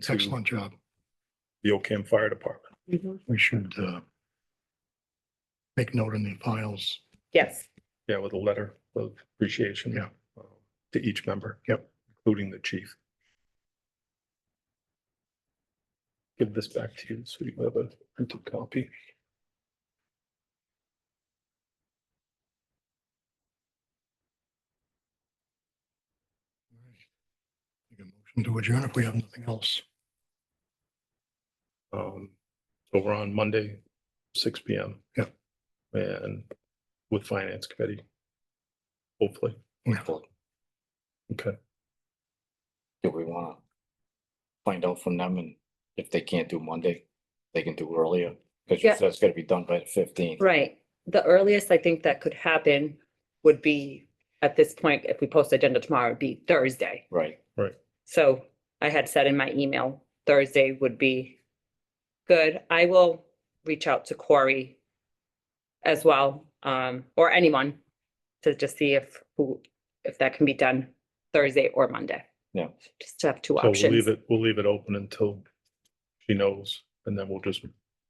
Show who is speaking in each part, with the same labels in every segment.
Speaker 1: to
Speaker 2: Excellent job.
Speaker 1: the Ocam Fire Department.
Speaker 3: Mm-hmm.
Speaker 2: We should uh, make note in the files.
Speaker 3: Yes.
Speaker 1: Yeah, with a letter of appreciation.
Speaker 2: Yeah.
Speaker 1: uh, To each member.
Speaker 2: Yep.
Speaker 1: Including the chief. Give this back to you so you have a printed copy.
Speaker 2: Make a motion To adjourn if we have nothing else.
Speaker 1: Um, so we're on Monday, six P M.
Speaker 2: Yep.
Speaker 1: And with finance committee. Hopefully.
Speaker 4: Hopefully.
Speaker 1: Okay,
Speaker 4: Do we wanna find out from them and if they can't do Monday, they can do earlier? Cause you
Speaker 3: Yeah.
Speaker 4: said it's gonna be done by the fifteenth.
Speaker 3: Right. The earliest I think that could happen would be, at this point, if we post agenda tomorrow, it'd be Thursday.
Speaker 4: Right,
Speaker 3: So I had said in my email, Thursday would be good. I will reach out to Corey as well, um, or anyone to just see if, who, if that can be done Thursday or Monday.
Speaker 4: Yeah.
Speaker 3: Just to have two
Speaker 1: so we'll leave
Speaker 3: options.
Speaker 1: it, we'll leave it open until she knows, and then we'll just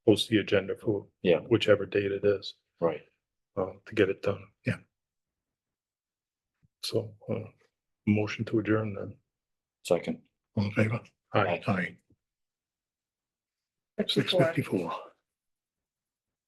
Speaker 1: post the agenda for
Speaker 4: Yeah.
Speaker 1: whichever date it is,
Speaker 4: right.
Speaker 1: uh, to get it done.
Speaker 2: Yeah.
Speaker 1: So, uh, motion to adjourn then.
Speaker 4: Second.
Speaker 2: All in favor?
Speaker 1: Aye.
Speaker 4: Aye.
Speaker 2: Aye. Six fifty-four.